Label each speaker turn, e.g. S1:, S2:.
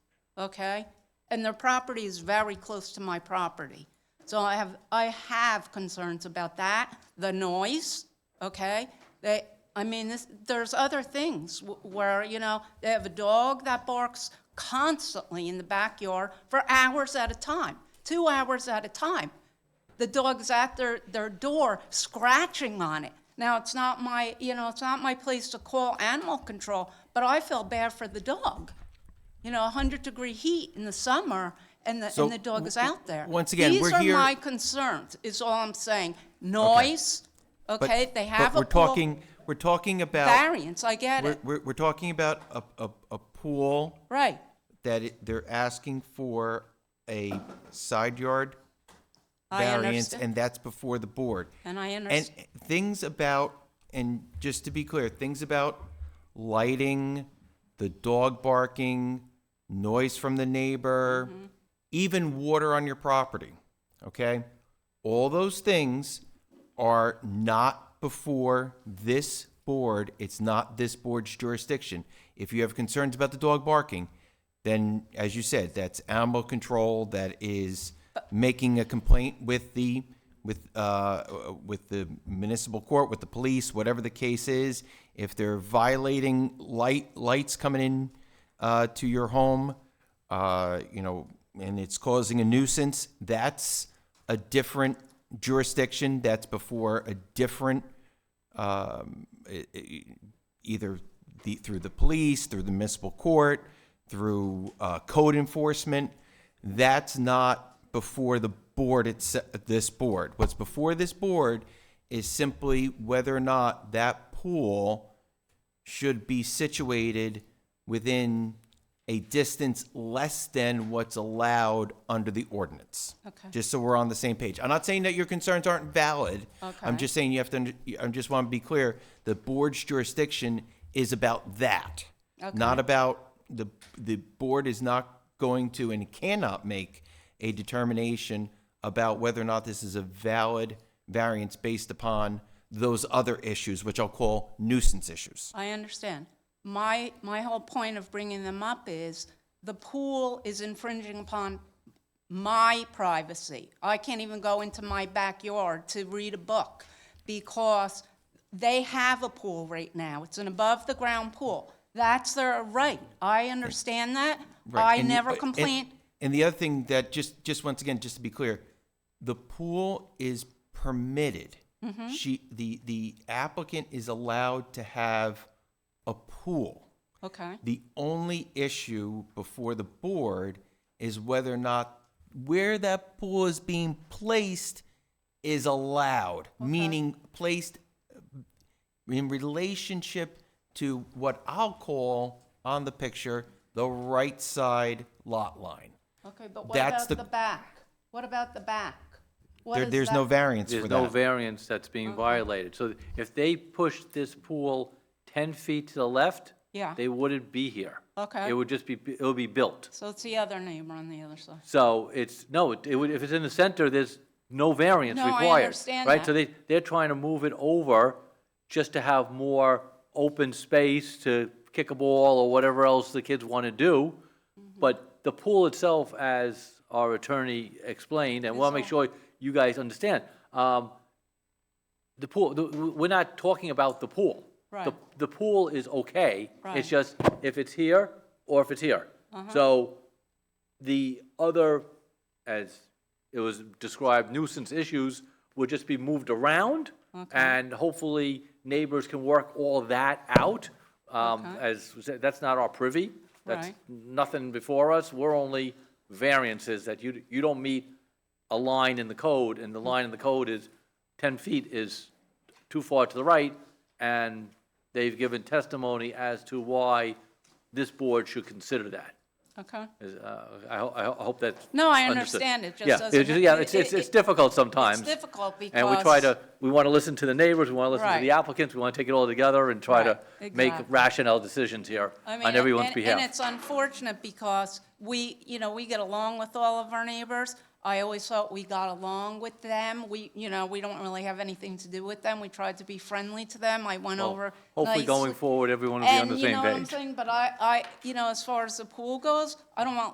S1: okay? And their property is very close to my property. So I have, I have concerns about that, the noise, okay? They, I mean, this, there's other things wh- where, you know, they have a dog that barks constantly in the backyard for hours at a time, two hours at a time. The dog's at their, their door scratching on it. Now, it's not my, you know, it's not my place to call animal control, but I feel bad for the dog. You know, 100 degree heat in the summer and the,
S2: So,
S1: and the dog is out there.
S2: once again, we're
S1: These
S2: here-
S1: are my concerns, is all I'm saying. Noise,
S2: But-
S1: okay, they have
S2: But
S1: a
S2: we're
S1: pool.
S2: talking, we're talking about,
S1: Variance, I get
S2: we're,
S1: it,
S2: we're, we're talking about a, a, a pool
S1: right.
S2: that it- they're asking for a side yard
S1: I
S2: variance,
S1: understand.
S2: and that's before the board.
S1: And I
S2: And
S1: understand,
S2: things about, and just to be clear, things about lighting, the dog barking, noise from the neighbor,
S1: Mm-hmm.
S2: even water on your property, okay? All those things are not before this board. It's not this board's jurisdiction. If you have concerns about the dog barking, then, as you said, that's animal control that is making a complaint with the, with, uh, with the municipal court, with the police, whatever the case is. If they're violating light, lights coming in, uh, to your home, uh, you know, and it's causing a nuisance, that's a different jurisdiction, that's before a different, um, e- e- either the, through the police, through the municipal court, through, uh, code enforcement. That's not before the board, it's, this board. What's before this board is simply whether or not that pool should be situated within a distance less than what's allowed under the ordinance.
S1: Okay.
S2: Just so we're on the same page. I'm not saying that your concerns aren't valid. I'm
S1: Okay.
S2: just saying you have to, under- I just want to be clear, the board's jurisdiction is about that. Not about, the, the board is not going to and cannot make a determination about whether or not this is a valid variance based upon those other issues, which I'll call nuisance issues.
S1: I understand. My, my whole point of bringing them up is the pool is infringing upon my privacy. I can't even go into my backyard to read a book because they have a pool right now. It's an above-the-ground pool. That's their right. I understand that.
S2: Right,
S1: I
S2: and you-
S1: never
S2: and-
S1: complained.
S2: And the other thing that, just, just once again, just to be clear, the pool is permitted.
S1: Mm-hmm.
S2: She, the, the applicant is allowed to have a pool.
S1: Okay,
S2: The only issue before the board is whether or not where that pool is being placed is allowed, meaning placed in relationship to what I'll call on the picture, the right side lot line.
S1: okay, but what
S2: That's
S1: about
S2: the-
S1: the back? What about the back? What
S2: There,
S1: is
S2: there's no
S1: that-
S2: variance for
S3: There's no
S2: that.
S3: variance that's being violated. So if they pushed this pool 10 feet to the left,
S1: Yeah.
S3: they wouldn't be here.
S1: Okay.
S3: It would just be, it would be built.
S1: So it's the other neighbor on the other side.
S3: So it's, no, it would, if it's in the center, there's no variance
S1: No, I
S3: required.
S1: understand
S3: Right, so
S1: that.
S3: they, they're trying to move it over just to have more open space to kick a ball or whatever else the kids want to do.
S1: Mm-hmm.
S3: But the pool itself, as our attorney explained, and we'll make sure you guys understand, um, the pool, the- we're not talking about the pool. The-
S1: Right.
S3: The pool is okay.
S1: Right. Uh-huh.
S3: It's just if it's here or if it's here. So the other, as it was described, nuisance issues would just be moved around, and hopefully neighbors can work all that out. Um, As, was said, that's not our privy, that's
S1: Right.
S3: nothing before us, we're only variances that you, you don't meet a line in the code, and the line in the code is 10 feet is too far to the right, and they've given testimony as to why this board should consider that.
S1: Okay.
S3: Is, uh, I, ho- I ho- I hope that's.
S1: No, I
S3: understood.
S1: understand. It just
S3: Yeah,
S1: doesn't-
S3: ju- Yeah, it's,
S1: it-
S3: it's, it's
S1: it-
S3: difficult sometimes.
S1: difficult
S3: And we try
S1: because-
S3: to, we want to listen to the neighbors, we want to listen to the
S1: Right.
S3: applicants, we want to take it all together and try to
S1: Right,
S3: make
S1: exactly.
S3: rational decisions here
S1: I mean,
S3: on everyone's
S1: and- And
S3: behalf.
S1: it's unfortunate because we, you know, we get along with all of our neighbors. I always thought we got along with them. We, you know, we don't really have anything to do with them. We tried to be friendly to them. I went
S3: Well,
S1: over.
S3: Hopefully
S1: nicely.
S3: going forward, everyone will be on the
S1: And you
S3: same
S1: know what I'm
S3: page.
S1: saying, but I, I, you know, as far as the pool goes, I don't want